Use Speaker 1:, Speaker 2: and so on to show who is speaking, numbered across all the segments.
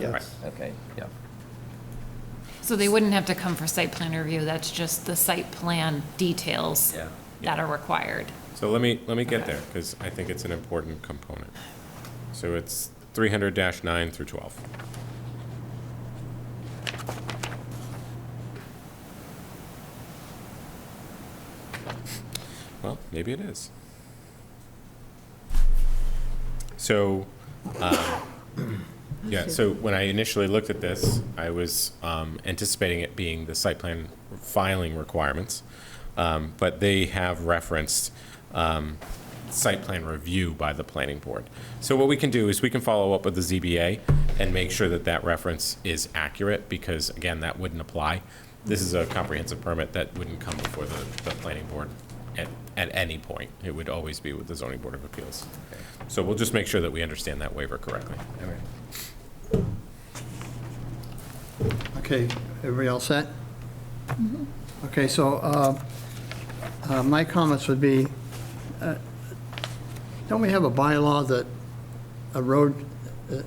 Speaker 1: Yes.
Speaker 2: Okay, yeah.
Speaker 3: So they wouldn't have to come for site plan review, that's just the site plan details
Speaker 2: Yeah.
Speaker 3: that are required.
Speaker 4: So let me, let me get
Speaker 3: Okay.
Speaker 4: there, because I think it's an important component. So it's three hundred nine through twelve. Well, maybe it is. So, um, yeah, so when I initially looked at this, I was um, anticipating it being the site plan filing requirements. Um, But they have referenced um, site plan review by the planning board. So what we can do is we can follow up with the ZBA and make sure that that reference is accurate, because again, that wouldn't apply. This is a comprehensive permit that wouldn't come before the, the planning board at, at any point. It would always be with the zoning board of appeals. So we'll just make sure that we understand that waiver correctly.
Speaker 2: All right.
Speaker 1: Okay, everybody all set? Okay, so uh, uh, my comments would be, uh, don't we have a bylaw that a road uh, is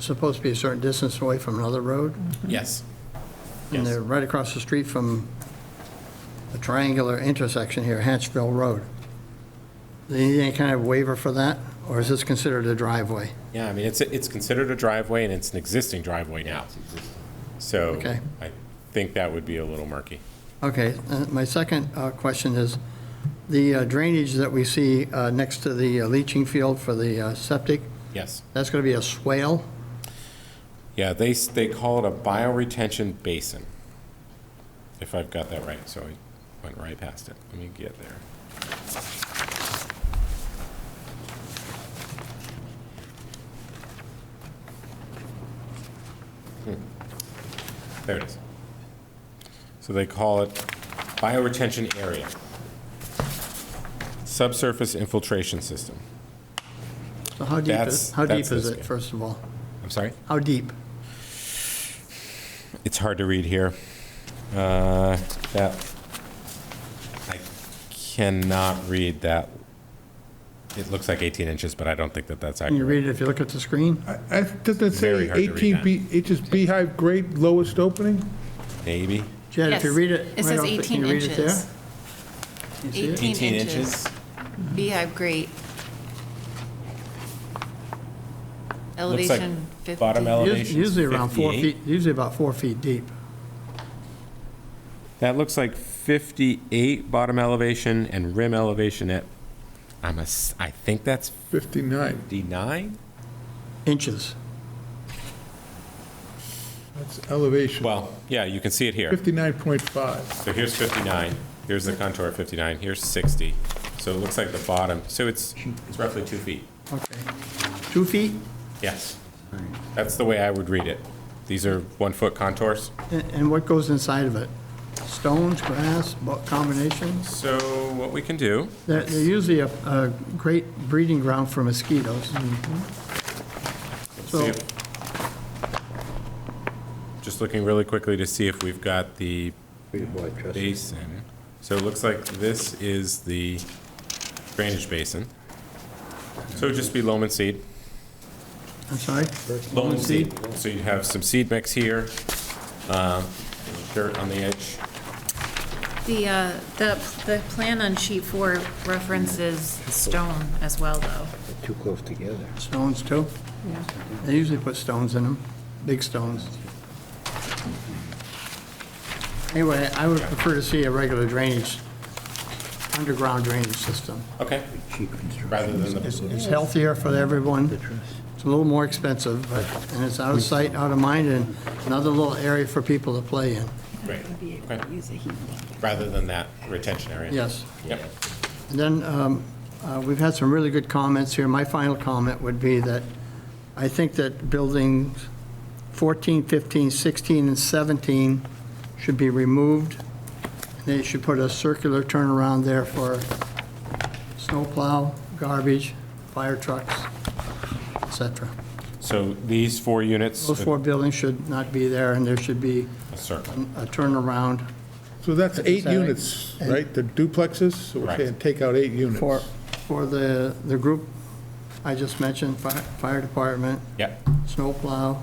Speaker 1: supposed to be a certain distance away from another road?
Speaker 4: Yes.
Speaker 1: And
Speaker 4: Yes.
Speaker 1: they're right across the street from the triangular intersection here, Hatchville Road. Do you need any kind of waiver for that, or is this considered a driveway?
Speaker 4: Yeah, I mean, it's, it's considered a driveway and it's an existing driveway now. So
Speaker 1: Okay.
Speaker 4: I think that would be a little murky.
Speaker 1: Okay, uh, my second uh, question is, the uh, drainage that we see uh, next to the uh, leaching field for the uh, septic,
Speaker 4: Yes.
Speaker 1: that's going to be a swale?
Speaker 4: Yeah, they, s- they call it a bioretention basin. If I've got that right, so I went right past it. Let me get there. Hmm. There it is. So they call it bioretention area. Subsurface infiltration system.
Speaker 1: So how deep
Speaker 4: That's-
Speaker 1: is, how deep
Speaker 4: that's
Speaker 1: is
Speaker 4: this
Speaker 1: it,
Speaker 4: guy.
Speaker 1: first of all?
Speaker 4: I'm sorry?
Speaker 1: How deep?
Speaker 4: It's hard to read here. Uh, That, I cannot read that. It looks like 18 inches, but I don't think that that's
Speaker 1: Can you
Speaker 4: accurate.
Speaker 1: read it if you look at the screen?
Speaker 5: I- I- Doesn't it
Speaker 4: Very
Speaker 5: say
Speaker 4: hard to read
Speaker 5: 18
Speaker 4: that.
Speaker 5: be- inches beehive grade lowest opening?
Speaker 4: Maybe?
Speaker 1: Jed, if you
Speaker 3: Yes,
Speaker 1: read it
Speaker 3: it
Speaker 1: right
Speaker 3: says
Speaker 1: off, the- can
Speaker 3: 18
Speaker 1: you read it there?
Speaker 3: inches.
Speaker 1: You see it?
Speaker 3: 18 inches. Beehive grate.
Speaker 4: Looks like
Speaker 3: Elevation 50.
Speaker 4: Bottom
Speaker 1: Us-
Speaker 4: elevation
Speaker 1: Usually around four
Speaker 4: 58.
Speaker 1: feet, usually about four feet deep.
Speaker 4: That looks like 58 bottom elevation and rim elevation at, I'm a, s- I think that's
Speaker 5: 59.
Speaker 4: 59?
Speaker 1: Inches.
Speaker 5: That's elevation.
Speaker 4: Well, yeah, you can see it here.
Speaker 5: 59.5.
Speaker 4: So here's 59, here's the contour of 59, here's 60. So it looks like the bottom, so it's it's roughly two feet.
Speaker 1: Okay. Two feet?
Speaker 4: Yes. That's the way I would read it. These are one-foot contours.
Speaker 1: And and what goes inside of it? Stones, grass, what combinations?
Speaker 4: So what we can do,
Speaker 1: They're they're usually a, a great breeding ground for mosquitoes.
Speaker 4: see
Speaker 1: So,
Speaker 4: if, just looking really quickly to see if we've got the basin. So it looks like this is the drainage basin. So it would just be loam and seed.
Speaker 1: I'm sorry?
Speaker 4: Loam and seed. So you'd have some seed mix here, um, dirt on the edge.
Speaker 3: The, uh, the, the plan on sheet four references stone as well, though.
Speaker 6: Too close together.
Speaker 1: Stones too? They usually put stones in them, big stones. Anyway, I would prefer to see a regular drainage, underground drainage system.
Speaker 4: Okay,
Speaker 6: Cheap construction.
Speaker 4: rather than
Speaker 1: It's
Speaker 4: the,
Speaker 1: it's healthier for everyone. It's a little more expensive, but, and it's out of sight, out of mind, and another little area for people to play in.
Speaker 4: right, okay. Rather than that retention area.
Speaker 1: Yes.
Speaker 4: Yep.
Speaker 1: And then, um, uh, we've had some really good comments here. My final comment would be that I think that buildings 14, 15, 16, and 17 should be removed. They should put a circular turnaround there for snowplow, garbage, fire trucks, et cetera.
Speaker 4: So these four units,
Speaker 1: Those
Speaker 4: a
Speaker 1: four buildings should not be there, and there should be
Speaker 4: circle.
Speaker 1: a turnaround
Speaker 5: So that's
Speaker 1: That's
Speaker 5: eight
Speaker 1: exciting.
Speaker 5: units, right? The duplexes, so we're
Speaker 4: Right.
Speaker 5: saying take out eight units.
Speaker 1: for, for the, the group I just mentioned, fire fire department,
Speaker 4: Yep,
Speaker 1: snowplow,